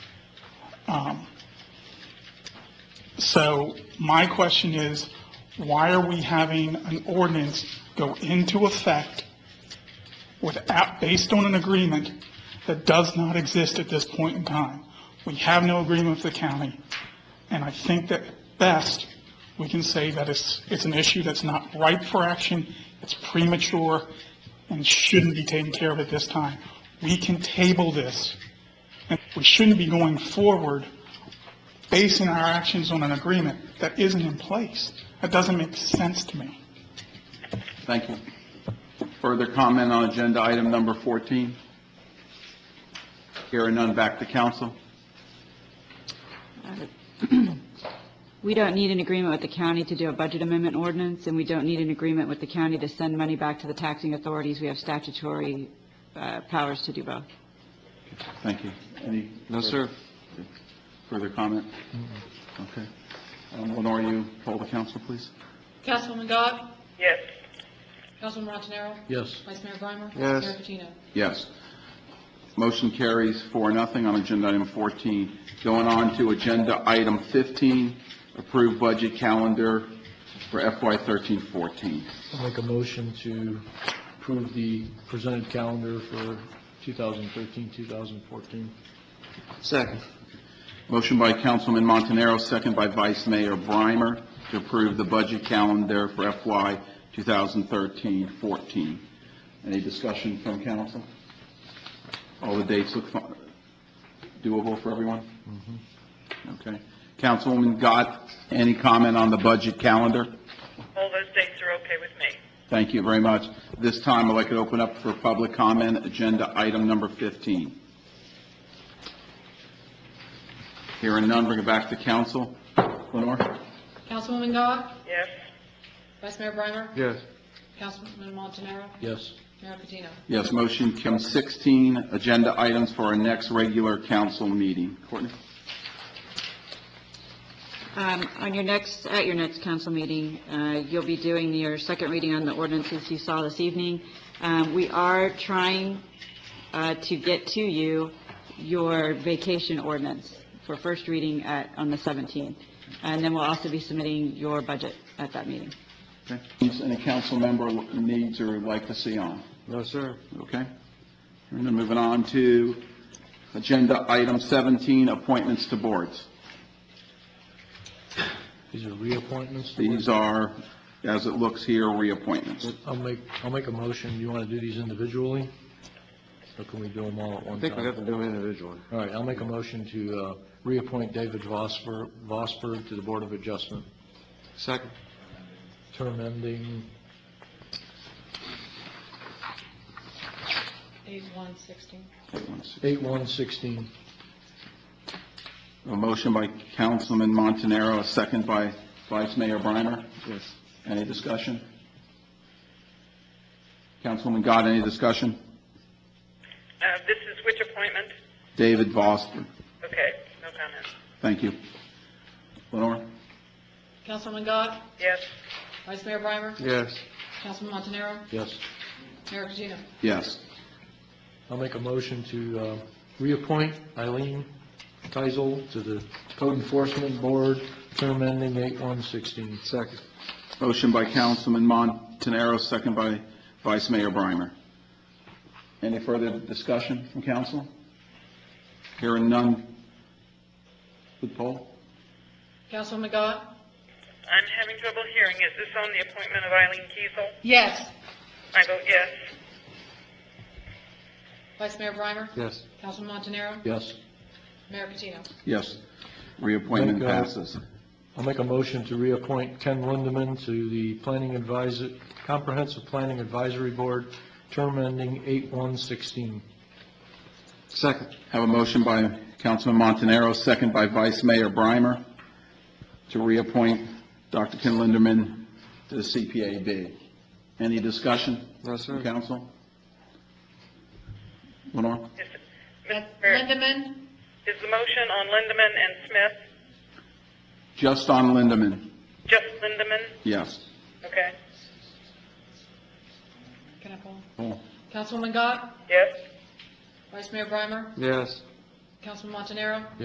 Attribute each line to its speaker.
Speaker 1: So my question is, why are we having an ordinance go into effect without, based on an agreement that does not exist at this point in time? We have no agreement with the county, and I think that best, we can say that it's, it's an issue that's not ripe for action, it's premature, and shouldn't be taken care of at this time. We can table this, and we shouldn't be going forward basing our actions on an agreement that isn't in place. That doesn't make sense to me.
Speaker 2: Thank you. Further comment on agenda item number 14? Hearing none, back to council.
Speaker 3: We don't need an agreement with the county to do a budget amendment ordinance, and we don't need an agreement with the county to send money back to the taxing authorities. We have statutory uh, powers to do both.
Speaker 2: Thank you. Any?
Speaker 4: No, sir.
Speaker 2: Further comment? Okay. Um, Lenore, you poll the council, please.
Speaker 5: Councilwoman Dodd?
Speaker 6: yes,
Speaker 5: Councilman Montanaro?
Speaker 4: Yes.
Speaker 5: Vice Mayor Breimer?
Speaker 4: Yes.
Speaker 5: Mayor Patino?
Speaker 2: Yes. Motion carries four, nothing on agenda item 14. Going on to agenda item 15, approved budget calendar for FY 13-14.
Speaker 7: I'll make a motion to approve the presented calendar for 2013, 2014.
Speaker 4: Second.
Speaker 2: Motion by Councilman Montanaro, second by Vice Mayor Breimer, to approve the budget calendar for FY 2013-14. Any discussion from council? All the dates look fi- doable for everyone? Okay. Councilwoman Gott, any comment on the budget calendar?
Speaker 6: all those dates are okay with me.
Speaker 2: Thank you very much. This time, I'd like to open up for public comment, agenda item number 15. Hearing none, bring it back to council. Lenore?
Speaker 5: Councilwoman Dodd?
Speaker 6: Yes,
Speaker 5: Vice Mayor Breimer?
Speaker 4: Yes.
Speaker 5: Councilman Montanaro?
Speaker 7: Yes.
Speaker 5: Mayor Patino?
Speaker 2: Yes, motion comes 16, agenda items for our next regular council meeting. Courtney?
Speaker 3: Um, On your next, at your next council meeting, uh, you'll be doing your second reading on the ordinances you saw this evening. Um, We are trying uh, to get to you your vacation ordinance for first reading at, on the 17th. And then we'll also be submitting your budget at that meeting.
Speaker 2: Okay. Any council member needs or would like to see on?
Speaker 4: No, sir.
Speaker 2: Okay. Hearing none, moving on to agenda item 17, appointments to boards.
Speaker 7: These are reappointments?
Speaker 2: These are, as it looks here, reappointments.
Speaker 7: I'll make, I'll make a motion. You want to do these individually? Or can we do them all at
Speaker 4: I
Speaker 7: one
Speaker 4: think we have
Speaker 7: time?
Speaker 4: to do them individually.
Speaker 7: All right, I'll make a motion to uh, reappoint David Vosper, Vosper to the Board of Adjustment,
Speaker 4: Second.
Speaker 7: term ending,
Speaker 5: 8116.
Speaker 2: Wait one second.
Speaker 7: 8/1/16.
Speaker 2: A motion by Councilman Montanaro, a second by Vice Mayor Breimer.
Speaker 4: Yes.
Speaker 2: Any discussion? Councilwoman Gott, any discussion?
Speaker 6: uh, this is which appointment?
Speaker 2: David Vosper,
Speaker 6: Okay, no comment.
Speaker 2: thank you. Lenore?
Speaker 5: Councilwoman Dodd?
Speaker 6: Yes,
Speaker 5: Vice Mayor Breimer?
Speaker 4: Yes.
Speaker 5: Councilman Montanaro?
Speaker 7: Yes.
Speaker 5: Mayor Patino?
Speaker 2: Yes.
Speaker 7: I'll make a motion to uh, reappoint Eileen Keisel to the Code Enforcement Board, term ending 8/1/16.
Speaker 4: Second.
Speaker 2: Motion by Councilman Montanaro, second by Vice Mayor Breimer. Any further discussion from council? Hearing none. Good poll?
Speaker 5: Councilwoman Dodd?
Speaker 6: I'm having trouble hearing. Is this on the appointment of Eileen Kiesel?
Speaker 5: Yes.
Speaker 6: I vote yes.
Speaker 5: Vice Mayor Breimer?
Speaker 4: Yes.
Speaker 5: Councilman Montanaro?
Speaker 7: Yes.
Speaker 5: Mayor Patino?
Speaker 2: Yes. Reappointment
Speaker 7: Thank God.
Speaker 2: passes.
Speaker 7: I'll make a motion to reappoint Ken Lindeman to the Planning Advisor, Comprehensive Planning Advisory Board, term ending 8/1/16.
Speaker 4: Second.
Speaker 2: Have a motion by Councilman Montanaro, second by Vice Mayor Breimer, to reappoint Dr. Ken Linderman to the CPAB. Any discussion?
Speaker 4: No, sir.
Speaker 2: Council? Lenore?
Speaker 6: Is, Mr. Mayor,
Speaker 5: Lindemann?
Speaker 6: is the motion on Lindemann and Smith,
Speaker 2: Just on Linderman,
Speaker 6: just Lindemann?
Speaker 2: yes.
Speaker 6: Okay,
Speaker 5: Can I call?
Speaker 4: Oh.
Speaker 2: Poll.
Speaker 5: Councilwoman Dodd?
Speaker 6: yes?
Speaker 5: Vice Mayor Breimer?
Speaker 4: Yes.
Speaker 5: Councilman Montanaro?